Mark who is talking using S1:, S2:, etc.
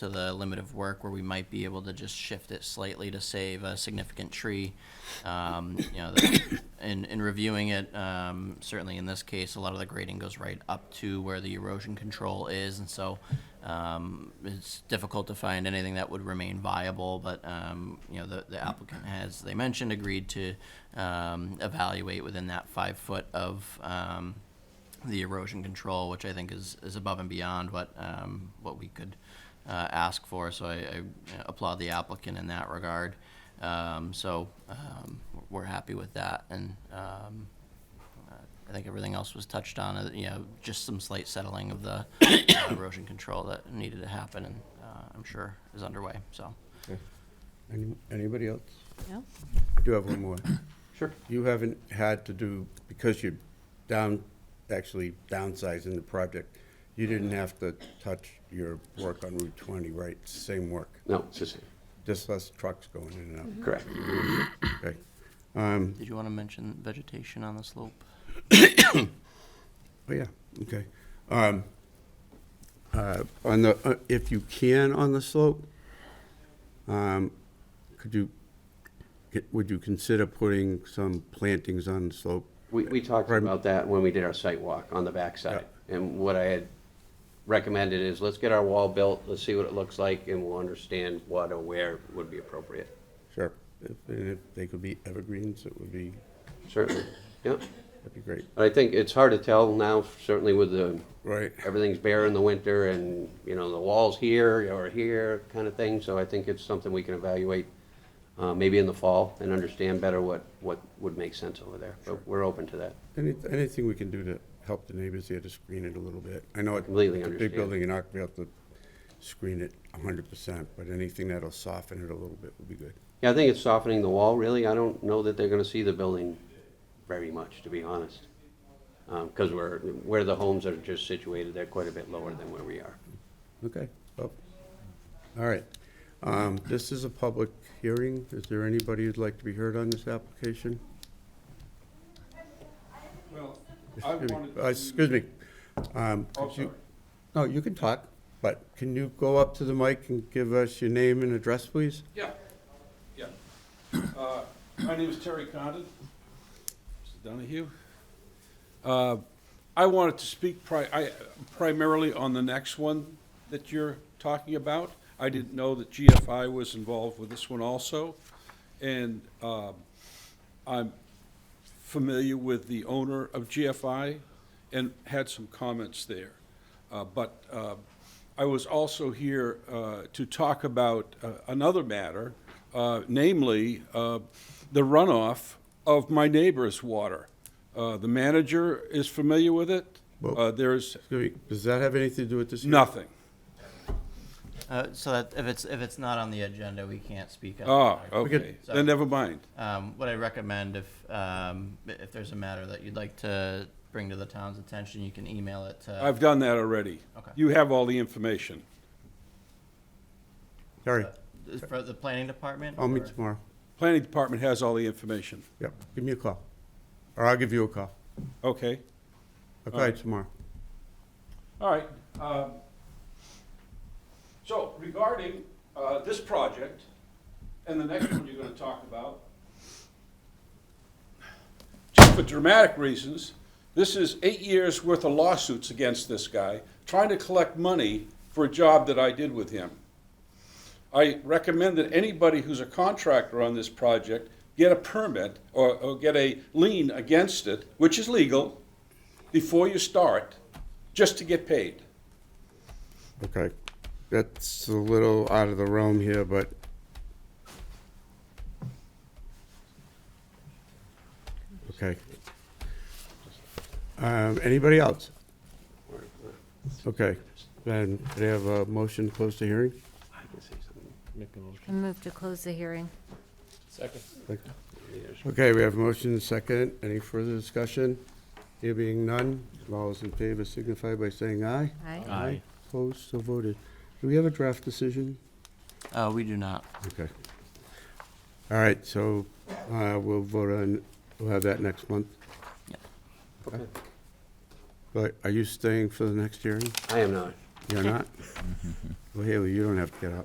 S1: to the limit of work where we might be able to just shift it slightly to save a significant tree. Um, you know, the- in, in reviewing it, um, certainly in this case, a lot of the grading goes right up to where the erosion control is, and so, um, it's difficult to find anything that would remain viable, but, um, you know, the, the applicant has, they mentioned, agreed to, um, evaluate within that five foot of, um, the erosion control, which I think is, is above and beyond what, um, what we could, uh, ask for, so I, I applaud the applicant in that regard. Um, so, um, we're happy with that, and, um, uh, I think everything else was touched on, uh, you know, just some slight settling of the uh, erosion control that needed to happen, and, uh, I'm sure is underway, so.
S2: Any- Anybody else?
S3: No?
S2: I do have one more.
S1: Sure.
S2: You haven't had to do, because you're down, actually downsizing the project, you didn't have to touch your work on Route 20, right? Same work,
S4: No, it's just,
S2: just less trucks going in and
S4: correct.
S2: out. Okay. Um,
S1: Did you wanna mention vegetation on the slope?
S2: Oh, yeah, okay. Um, uh, On the, uh, if you can on the slope, um, could you, would you consider putting some plantings on the slope?
S4: We, we talked
S2: Right.
S4: about that when we did our site walk on the backside. And what I had recommended is, let's get our wall built, let's see what it looks like, and we'll understand what or where would be appropriate.
S2: Sure. If and if they could be evergreens, it would be,
S4: Certainly, yeah.
S2: that'd be great.
S4: But I think it's hard to tell now, certainly with the,
S2: Right.
S4: everything's bare in the winter and, you know, the wall's here or here kind of thing. So I think it's something we can evaluate, uh, maybe in the fall and understand better what, what would make sense over there. But we're open to that.
S2: Any- Anything we can do to help the neighbors here to screen it a little bit? I know it's
S4: Completely
S2: a big
S4: understand.
S2: building, and not be able to screen it hundred percent, but anything that'll soften it a little bit would be good.
S4: Yeah, I think it's softening the wall, really. I don't know that they're gonna see the building very much, to be honest. Um, cause we're, where the homes are just situated, they're quite a bit lower than where we are.
S2: Okay. Well, All right. Um, This is a public hearing. Is there anybody who'd like to be heard on this application?
S5: Well, I
S2: Excuse me.
S5: wanted
S2: Uh,
S5: to,
S2: Excuse me. Um,
S5: oh,
S2: could you-
S5: sorry.
S2: No, you can talk, but can you go up to the mic and give us your name and address, please?
S5: Yeah, yeah. Uh, My name is Terry Condon, Mr. Donahue. Uh, I wanted to speak pri- I- primarily on the next one that you're talking about. I didn't know that GFI was involved with this one also. And um, I'm familiar with the owner of GFI and had some comments there. Uh, But uh, I was also here uh, to talk about uh, another matter, uh, namely uh, the runoff of my neighbor's water. Uh, The manager is familiar with it.
S2: Well-
S5: Uh, There's
S2: Excuse me, Does that have anything to do with this? hearing?
S5: nothing.
S1: Uh, so that, if it's, if it's not on the agenda, we can't speak on it.
S5: Ah,
S2: could-
S5: okay, then never mind.
S1: Um, what I recommend if, um, if there's a matter that you'd like to bring to the town's attention, you can email it to.
S5: I've done that already.
S1: Okay.
S5: You have all the information.
S2: Sorry,
S1: Is For the planning department?
S2: I'll
S1: or-
S2: meet tomorrow.
S5: Planning Department has all the information.
S2: Yep, give me a call, or I'll give you a call.
S5: Okay,
S2: I'll
S5: All
S2: call you
S5: right.
S2: tomorrow.
S5: all right. um, So regarding uh, this project and the next one you're going to talk about, just for dramatic reasons, this is eight years' worth of lawsuits against this guy, trying to collect money for a job that I did with him. I recommend that anybody who's a contractor on this project get a permit or, or get a lien against it, which is legal, before you start, just to get paid.
S2: Okay, that's a little out of the realm here, but okay. Um, anybody else? Okay, then they have a motion to close the hearing.
S4: I can say something.
S6: Make a motion.
S3: I move to close the hearing.
S6: Second.
S2: Okay, we have motion and second. Any further discussion? There being none, all those in favor signify by saying aye.
S3: Aye.
S6: Aye.
S2: Opposed, so voted. Do we have a draft decision?
S1: Uh, we do not.
S2: Okay. All right, so uh, we'll vote on, we'll have that next month.
S1: Yep.
S2: Okay. But are you staying for the next hearing?
S4: I am not.
S2: You're not? Well, Haley, you don't have to get up.